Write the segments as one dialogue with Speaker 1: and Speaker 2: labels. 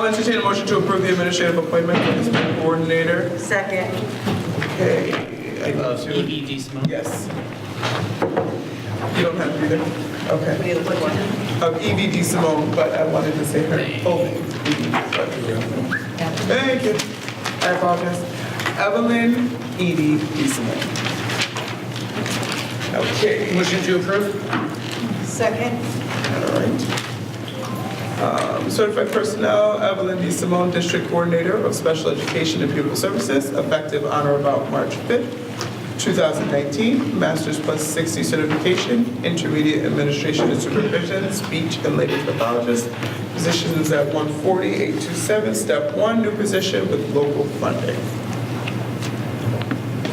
Speaker 1: I'll entertain a motion to approve the administrative appointment for the spring coordinator.
Speaker 2: Second.
Speaker 1: Okay, I love to.
Speaker 3: EBD Simone.
Speaker 1: Yes. You don't have to be there. Okay.
Speaker 2: We look one.
Speaker 1: Of Evie D. Simone, but I wanted to say her full name. Thank you. I apologize. Evelyn Edie D. Simone. Okay.
Speaker 3: Motion to approve?
Speaker 2: Second.
Speaker 1: All right. Um, Certified personnel, Evelyn D. Simone, District Coordinator of Special Education and Pupil Services, effective on or about March 5th, 2019, Master's Plus 60 Certification, Intermediate Administration and Supervision, Speech and Language Pathologist. Position is at 140,827, Step 1, new position with local funding.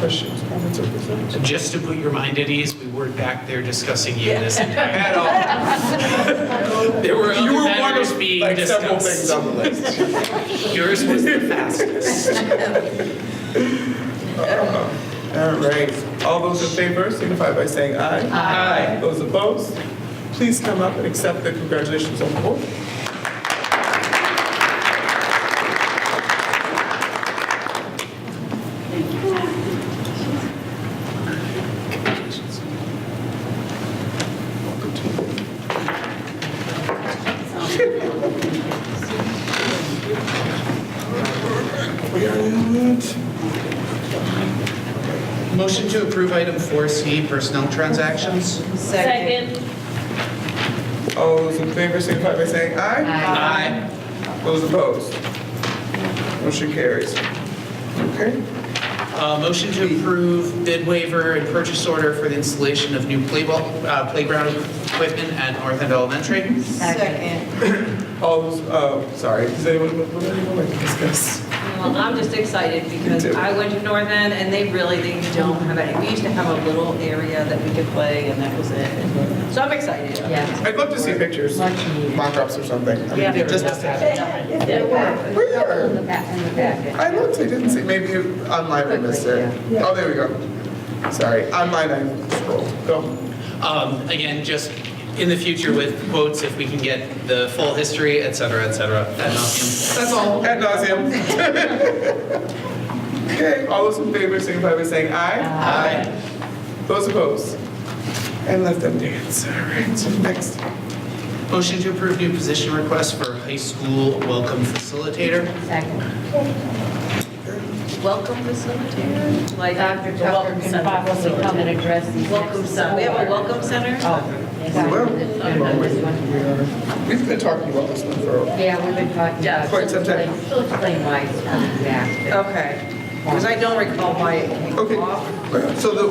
Speaker 1: Questions, comments, or concerns?
Speaker 3: Just to put your mind at ease, we weren't back there discussing you this entire.
Speaker 1: At all.
Speaker 3: There were
Speaker 1: You
Speaker 3: other
Speaker 1: were one
Speaker 3: matters
Speaker 1: of,
Speaker 3: being
Speaker 1: like, several things
Speaker 3: discussed.
Speaker 1: on the list.
Speaker 3: Yours was the fastest.
Speaker 1: All right, all those in favor signify by saying aye. Aye. Those opposed, please come up and accept the congratulations on the board. We are not.
Speaker 3: Motion to approve item 4C, personnel transactions.
Speaker 2: Second.
Speaker 1: All those in favor signify by saying aye.
Speaker 3: Aye.
Speaker 1: Those opposed, motion carries. Okay,
Speaker 3: Uh, Motion to approve bid waiver and purchase order for the installation of new play- uh, playground equipment at North End Elementary.
Speaker 2: Second.
Speaker 1: all those, uh, sorry, does anyone, would anyone like to discuss?
Speaker 4: Well, I'm just excited because
Speaker 1: Me too.
Speaker 4: I went to North End and they really, they don't have any, we used to have a little area that we could play and that was it. So I'm excited.
Speaker 5: Yeah.
Speaker 1: I'd love to see pictures,
Speaker 5: Much needed.
Speaker 1: mock-ups or something. I mean,
Speaker 4: Yeah.
Speaker 1: just- We are.
Speaker 5: In the back, in the
Speaker 1: I
Speaker 5: back.
Speaker 1: looked, I didn't see, maybe online I missed it. Oh, there we go. Sorry, online I scrolled, go.
Speaker 3: Um, Again, just in the future with quotes, if we can get the full history, et cetera, et cetera. Ad nauseam.
Speaker 1: That's all, ad nauseam. Okay, all those in favor signify by saying aye. Aye. Those opposed? And let them dance, all right, so next.
Speaker 3: Motion to approve new position request for high school welcome facilitator.
Speaker 5: Second.
Speaker 4: Welcome facilitator? Like
Speaker 5: Dr.
Speaker 4: the welcome
Speaker 5: Tucker can
Speaker 4: center.
Speaker 5: probably come and address these next
Speaker 4: Welcome center, we have a
Speaker 5: four.
Speaker 4: welcome center?
Speaker 5: Yes,
Speaker 1: We will.
Speaker 5: this one, this one.
Speaker 1: We've been talking about this one for, a-
Speaker 5: Yeah, we've been talking
Speaker 4: Yeah.
Speaker 5: about.
Speaker 1: Quite some time.
Speaker 5: She'll explain why it's coming back.
Speaker 4: Okay, because I don't recall why it came off.
Speaker 1: okay, so the,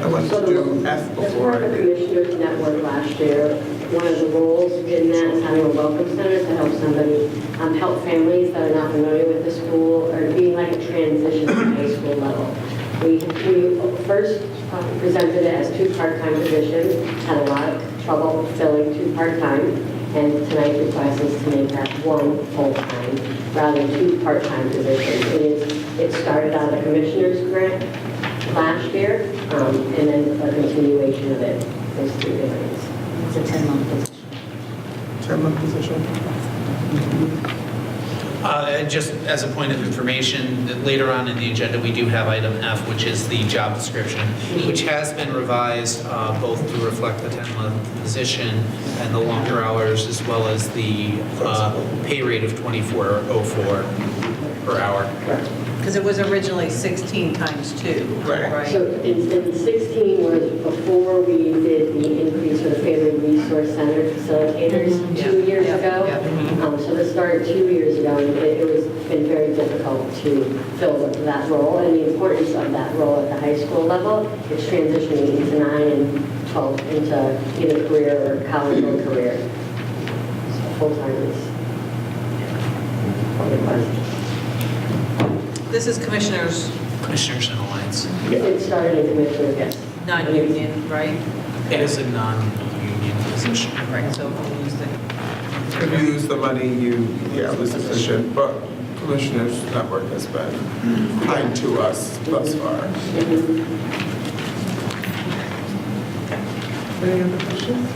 Speaker 1: I wanted to do F
Speaker 6: As part
Speaker 1: before.
Speaker 6: of the
Speaker 1: I did.
Speaker 6: Commissioners Network last year, one of the roles in that is having a welcome center to help somebody, um, help families that are not familiar with the school or being like a transition to high school level. We, we first uh, presented it as two part-time positions, had a lot of trouble filling two part-time. And tonight's request is to make that one full-time rather than two part-time positions. It is, it started on the commissioner's grant last year, um, and then a continuation of it, those three different.
Speaker 5: It's a 10-month position.
Speaker 1: Chairman position.
Speaker 3: Uh, and Just as a point of information, that later on in the agenda, we do have item F, which is the job description, which has been revised uh, both to reflect the 10-month position and the longer hours, as well as the uh, pay rate of 24.04 per hour.
Speaker 4: Because it was originally 16 times two,
Speaker 1: Right.
Speaker 4: right?
Speaker 6: So in in 16 was before we did the increase for the Family Resource Center facilitators two
Speaker 4: Yeah,
Speaker 6: years
Speaker 4: yeah,
Speaker 6: ago.
Speaker 4: yeah. Mm-hmm.
Speaker 6: Um, So this started two years ago, and it it was been very difficult to fill that role, and the importance of that role at the high school level is transitioning into 9 and 12, into either career or college or career. So Full-time is what it was.
Speaker 4: This is Commissioners
Speaker 3: Commissioners and Alliance.
Speaker 6: It started in Commissioner, yes.
Speaker 4: non-union, right?
Speaker 3: It is a non-union position.
Speaker 4: Right, so we'll use the,
Speaker 1: If you lose the money, you, yeah, lose the position, but Commissioners Network has been kind to us thus far. Any other questions?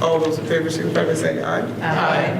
Speaker 1: All those in favor signify by saying aye.
Speaker 4: Aye.